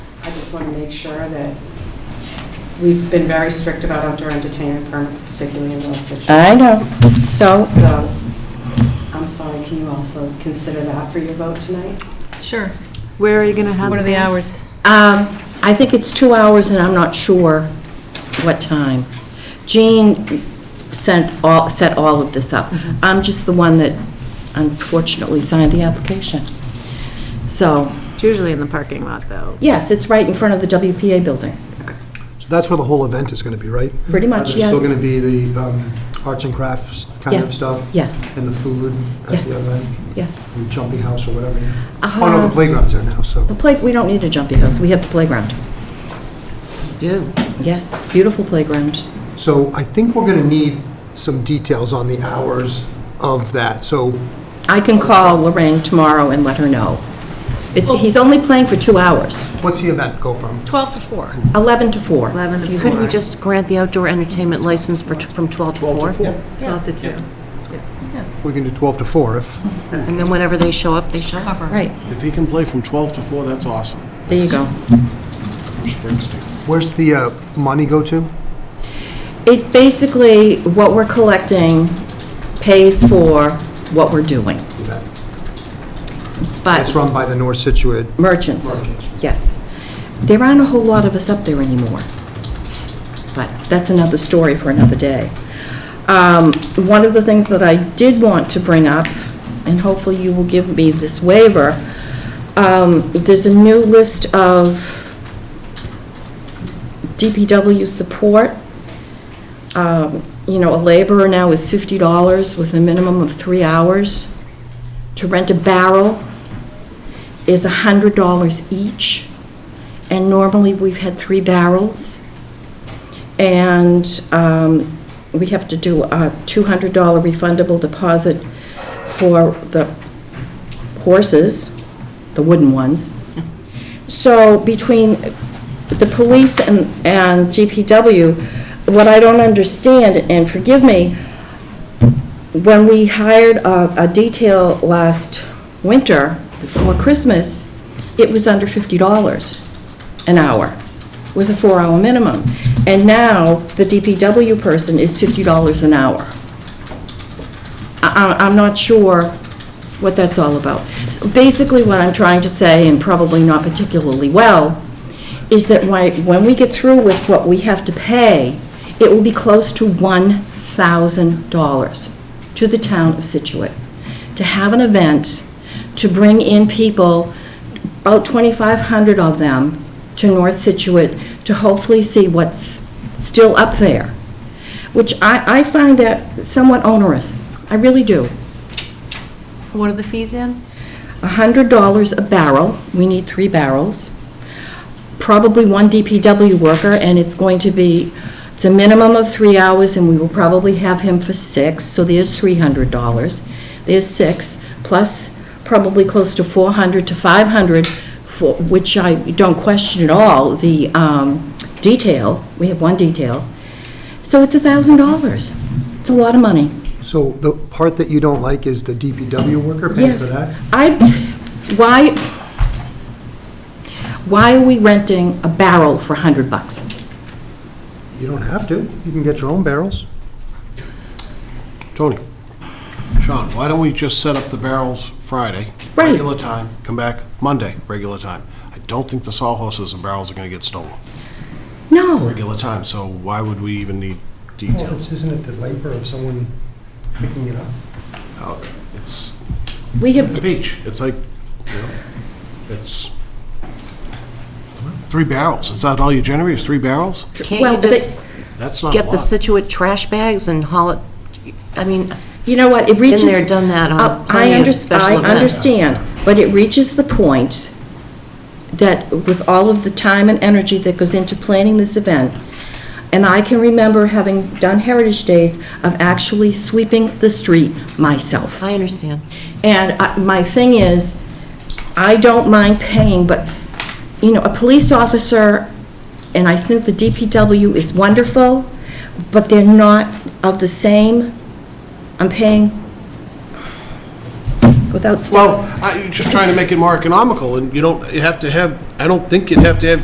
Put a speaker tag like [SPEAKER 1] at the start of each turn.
[SPEAKER 1] just want to make sure that we've been very strict about outdoor entertainment permits, particularly in those situations.
[SPEAKER 2] I know. So,
[SPEAKER 1] So, I'm sorry, can you also consider that for your vote tonight?
[SPEAKER 3] Sure.
[SPEAKER 4] Where are you going to have?
[SPEAKER 3] What are the
[SPEAKER 4] that?
[SPEAKER 3] hours?
[SPEAKER 2] um, I think it's two hours, and I'm not sure what time. Jean sent all, set all of this up. I'm just the one that unfortunately signed the application. So,
[SPEAKER 4] It's usually in the parking lot, though.
[SPEAKER 2] yes, it's right in front of the WPA building,
[SPEAKER 5] So that's where the whole event is going to be, right?
[SPEAKER 2] pretty much, yes.
[SPEAKER 5] There's Mm-hmm. still going to be the um, arts and crafts kind
[SPEAKER 2] Yeah.
[SPEAKER 5] of stuff?
[SPEAKER 2] Yes,
[SPEAKER 5] And the food at
[SPEAKER 2] Yes.
[SPEAKER 5] the event,
[SPEAKER 2] yes.
[SPEAKER 5] and jumping house or whatever. Oh, no,
[SPEAKER 2] Uh,
[SPEAKER 5] the playground's there now, so.
[SPEAKER 2] The play, we don't need a jumpy house, we have the playground.
[SPEAKER 4] Do.
[SPEAKER 2] Yes, beautiful playground.
[SPEAKER 5] So I think we're going to need some details on the hours of that. So
[SPEAKER 2] I can call Lorraine tomorrow and let her know. It's, he's only playing for two hours,
[SPEAKER 5] what's the event go from?
[SPEAKER 3] 12 to 4.
[SPEAKER 2] 11 to 4.
[SPEAKER 4] 11 to
[SPEAKER 6] Couldn't we
[SPEAKER 4] 4.
[SPEAKER 6] just grant the outdoor entertainment license for, t- from 12 to 4?
[SPEAKER 5] 12 to 4?
[SPEAKER 4] 12 to 2.
[SPEAKER 5] We can do 12 to 4 if,
[SPEAKER 6] And then whenever they show up, they show up?
[SPEAKER 2] Right,
[SPEAKER 7] If he can play from 12 to 4, that's awesome.
[SPEAKER 2] there you go.
[SPEAKER 7] Bruce Springsteen.
[SPEAKER 5] where's the uh, money go to?
[SPEAKER 2] It basically, what we're collecting pays for what we're doing,
[SPEAKER 5] The event. It's
[SPEAKER 2] but
[SPEAKER 5] run by the North Situate.
[SPEAKER 2] merchants,
[SPEAKER 5] Merchants.
[SPEAKER 2] yes. There aren't a whole lot of us up there anymore, but that's another story for another day. Um, One of the things that I did want to bring up, and hopefully you will give me this waiver, um, there's a new list of DPW support um, you know, a laborer now is fifty dollars with a minimum of three hours. To rent a barrel is hundred dollars each, and normally we've had three barrels. And um, we have to do a two hundred dollar refundable deposit for the horses, the wooden ones. So between the police and, and GPW, what I don't understand, and forgive me, when we hired a, a detail last winter for Christmas, it was under fifty dollars an hour with a four-hour minimum. And now, the DPW person is fifty dollars an hour. I, I- I'm not sure what that's all about. So Basically, what I'm trying to say, and probably not particularly well, is that why, when we get through with what we have to pay, it will be close to $1,000 to the town of Situate to have an event, to bring in people, about 2,500 of them, to North Situate to hopefully see what's still up there, which I, I find that somewhat onerous. I really do.
[SPEAKER 3] What are the fees in?
[SPEAKER 2] $100 a barrel, we need three barrels, probably one DPW worker, and it's going to be, it's a minimum of three hours, and we will probably have him for six, so there's $300. There's six, plus probably close to 400 to 500, for, which I don't question at all, the um, detail, we have one detail. So it's $1,000. It's a lot of money.
[SPEAKER 5] So the part that you don't like is the DPW worker paying for that?
[SPEAKER 2] I, why, why are we renting a barrel for 100 bucks?
[SPEAKER 5] You don't have to. You can get your own barrels.
[SPEAKER 7] Tony, Sean, why don't we just set up the barrels Friday?
[SPEAKER 2] Right.
[SPEAKER 7] Regular time, come back Monday, regular time. I don't think the sawhorses and barrels are going to get stolen,
[SPEAKER 2] No,
[SPEAKER 7] regular time, so why would we even need details?
[SPEAKER 5] Isn't it the labor of someone picking it up?
[SPEAKER 7] Oh, It's
[SPEAKER 2] we
[SPEAKER 7] at
[SPEAKER 2] have,
[SPEAKER 7] the beach, it's like, you know, it's three barrels. Is that all you generate, is three barrels?
[SPEAKER 6] Can't
[SPEAKER 2] well,
[SPEAKER 6] you just
[SPEAKER 2] but-
[SPEAKER 7] That's not a
[SPEAKER 6] get the
[SPEAKER 7] lot.
[SPEAKER 6] Situate trash bags and haul it, I mean,
[SPEAKER 2] you know what, it reaches...
[SPEAKER 6] there, done that on
[SPEAKER 2] Uh, I
[SPEAKER 6] plenty of
[SPEAKER 2] under-
[SPEAKER 6] special events.
[SPEAKER 2] I understand, but it reaches the point that with all of the time and energy that goes into planning this event, and I can remember having done Heritage Days of actually sweeping the street myself.
[SPEAKER 6] I understand.
[SPEAKER 2] And I- my thing is, I don't mind paying, but, you know, a police officer, and I think the DPW is wonderful, but they're not of the same, I'm paying without... sta-
[SPEAKER 7] Well, I- you're just trying to make it more economical, and you don't, you have to have, I don't think you'd have to have